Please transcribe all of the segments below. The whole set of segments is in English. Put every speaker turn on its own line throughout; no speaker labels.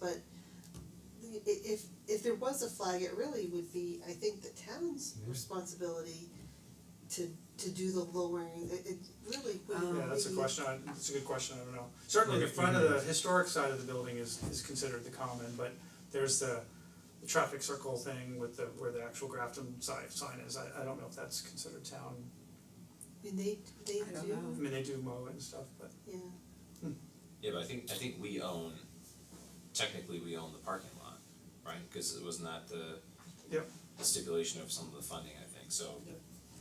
but i- if if there was a flag, it really would be, I think, the town's
Yeah.
responsibility to to do the lowering, it it really
Oh.
wouldn't
Yeah,
Um,
that's a
be-
question, I- that's a good question, I don't know. Certainly the
Right,
front of the
mhm.
historic side of the building is is considered the common, but there's the the traffic circle thing with the where the actual Grafton side sign is, I I don't know if that's considered town,
I mean, they they
I don't
I
do,
know.
mean, they do mow and stuff, but
yeah,
Yeah, but I think, I think we own, technically we own the parking lot, right? Cause it wasn't that the
Yep.
the stipulation of some of the funding, I think, so.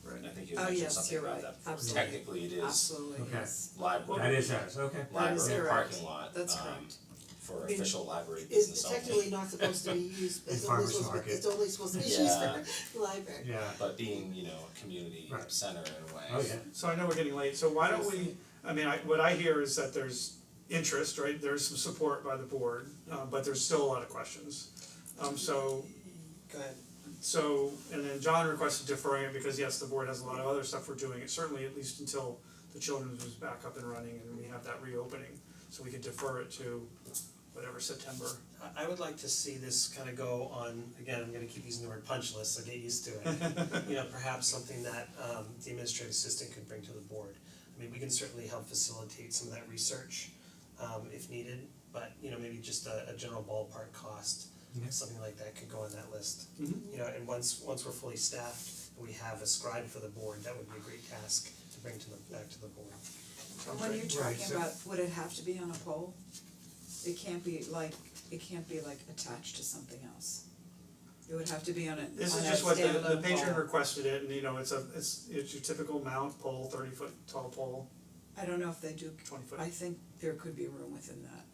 Right.
And I think you
Oh,
mentioned
yes,
something
you're
about
right.
that before,
Absolutely.
technically it is
Absolutely,
Okay.
yes.
library,
That is ours, okay.
That is
library
correct.
parking lot,
That's
um,
correct.
for
I mean,
official library
it's
business
technically
only.
not supposed to be used, it's only
farmer's
supposed to be,
market.
it's only supposed to be used
Yeah.
for library.
Yeah,
But being, you know, a community
Right.
center in a way.
oh yeah,
So I know we're getting late, so why don't we, I mean, I, what I hear is that there's interest, right, there's some support by the board, uh, but there's still a lot of questions. Um, so,
Go ahead.
so, and then John requested deferring it because yes, the board has a lot of other stuff we're doing, it certainly at least until the children's is back up and running and we have that reopening, so we could defer it to whatever September.
I I would like to see this kind of go on, again, I'm gonna keep using the word punch list, so get used to it. You know, perhaps something that um the administrative assistant could bring to the board. I mean, we can certainly help facilitate some of that research um if needed, but you know, maybe just a a general ballpark cost,
Yeah.
something like that could go on that list.
Mhm.
Mm-hmm.
You know, and once once we're fully staffed and we have a scribe for the board, that would be a great task to bring to the back to the board.
Sounds
When
great.
you're
Right,
talking
so-
about, would it have to be on a pole? It can't be like, it can't be like attached to something else. It would have to be on a, on a
This is just what the the
standalone
patron
pole.
requested it and you know, it's a, it's it's your typical mount pole, thirty foot tall pole,
I don't know if they do,
twenty foot,
I think there could be room within that,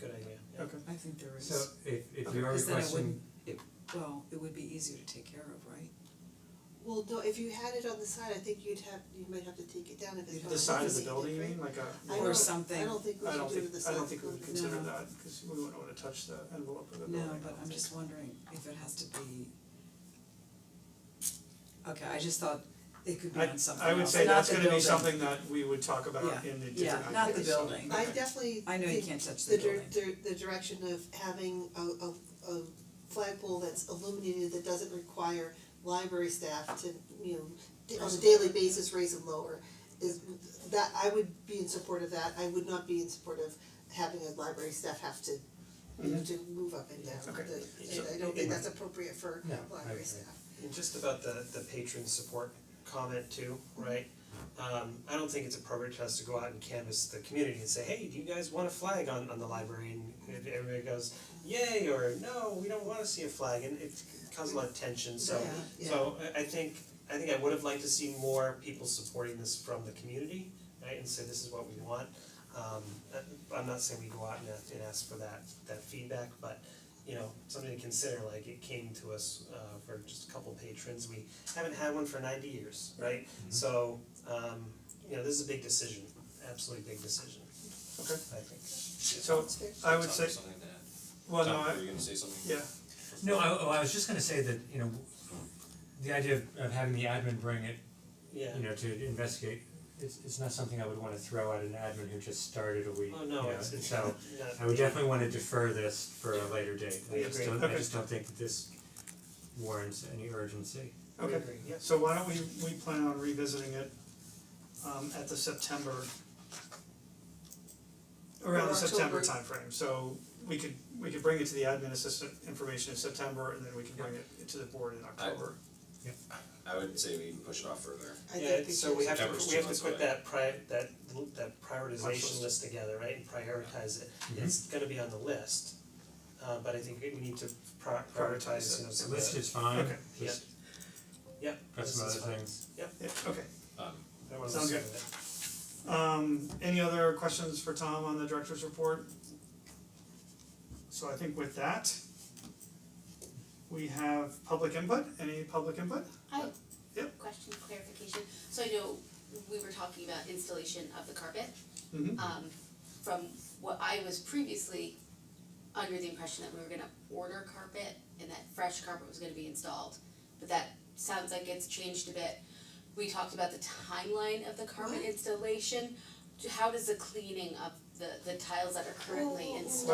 Good idea, yeah.
okay.
I think there is.
so if if you are
Cause then it
requesting,
wouldn't, it, well, it would be easier to take care of, right?
Well, no, if you had it on the side, I think you'd have, you might have to take it down if it's.
The side of the
behind
building, you
different.
mean, like a,
I
Or
don't-
something.
I don't think we
I
should
don't
do
think,
it with the
I
side
don't
of the
think we
building.
would consider
No.
that, cause we wouldn't wanna touch the envelope of the building.
No, but I'm just wondering if it has to be. Okay, I just thought it could be on something
I I would
else,
say
not
that's
the
gonna be
building.
something that we would talk
Yeah,
about in the
yeah,
different
not the
ideas, so-
building.
I
okay.
definitely
I know you
think
can't touch the
the dir-
building.
dir- the direction of having a a a flagpole that's illuminated that doesn't require library staff to, you know, d- on a daily basis raise and lower is that I would be in support of that, I would not be in support of having a library staff have to you know, to move up and down
Okay.
the, and I don't think that's appropriate for
No, I
library
agree.
staff.
And just about the the patron support comment too, right? Um I don't think it's appropriate for us to go out and canvass the community and say, hey, do you guys want a flag on on the library? And if everybody goes, yay, or no, we don't wanna see a flag, and it causes a lot of tension, so
Yeah,
so I I think I think I would have liked to see more people supporting this from the community, right, and say this is what we want. Um uh, I'm not saying we go out and ask and ask for that that feedback, but you know, something to consider, like it came to us uh for just a couple patrons, we haven't had one for ninety years, right?
Mm-hmm.
So um you know, this is a big decision, absolutely big decision,
Okay,
I think.
so
That's fair.
I would say,
Something like that.
well, no,
Tom,
I,
were you gonna say something?
yeah,
no, I oh, I was just gonna say that, you know, the idea of of having the admin bring it,
Yeah.
you know, to investigate, it's it's not something I would wanna throw at an admin who just started a week,
Oh,
you know,
no, it's it's
so
not-
I would definitely wanna defer this for a later date, I
We
just
agree.
don't, I
Okay.
just don't think that this warrants any urgency.
We
okay.
agree, yes.
So why don't we, we plan on revisiting it um at the September around the
Or
September
October.
timeframe, so we could, we could bring it to the admin assistant information in September and then we can bring it to the board in October.
I would say we even push it off further.
I
Yeah,
think we
so we
should-
have to,
September's
we have
two
to put
months away.
that pri- that l- that prioritization
list.
list together, right, and prioritize it.
Mm-hmm.
It's gonna be on the list, uh but I think we need to pri- prioritize, you know,
The
some of
list
the,
is fine,
Okay.
just
yeah,
got some
list
other
is fine.
things.
Yeah, okay.
Um,
I wanna
Sounds
listen
good.
to that.
Um, any other questions for Tom on the director's report? So I think with that, we have public input, any public input?
I
Yep.
question clarification, so I know we were talking about installation of the carpet.
Mhm.
Um from what I was previously under the impression that we were gonna order carpet and that fresh carpet was gonna be installed, but that sounds like it's changed a bit. We talked about the timeline of the carpet installation, how does the cleaning of the the tiles that are currently installed.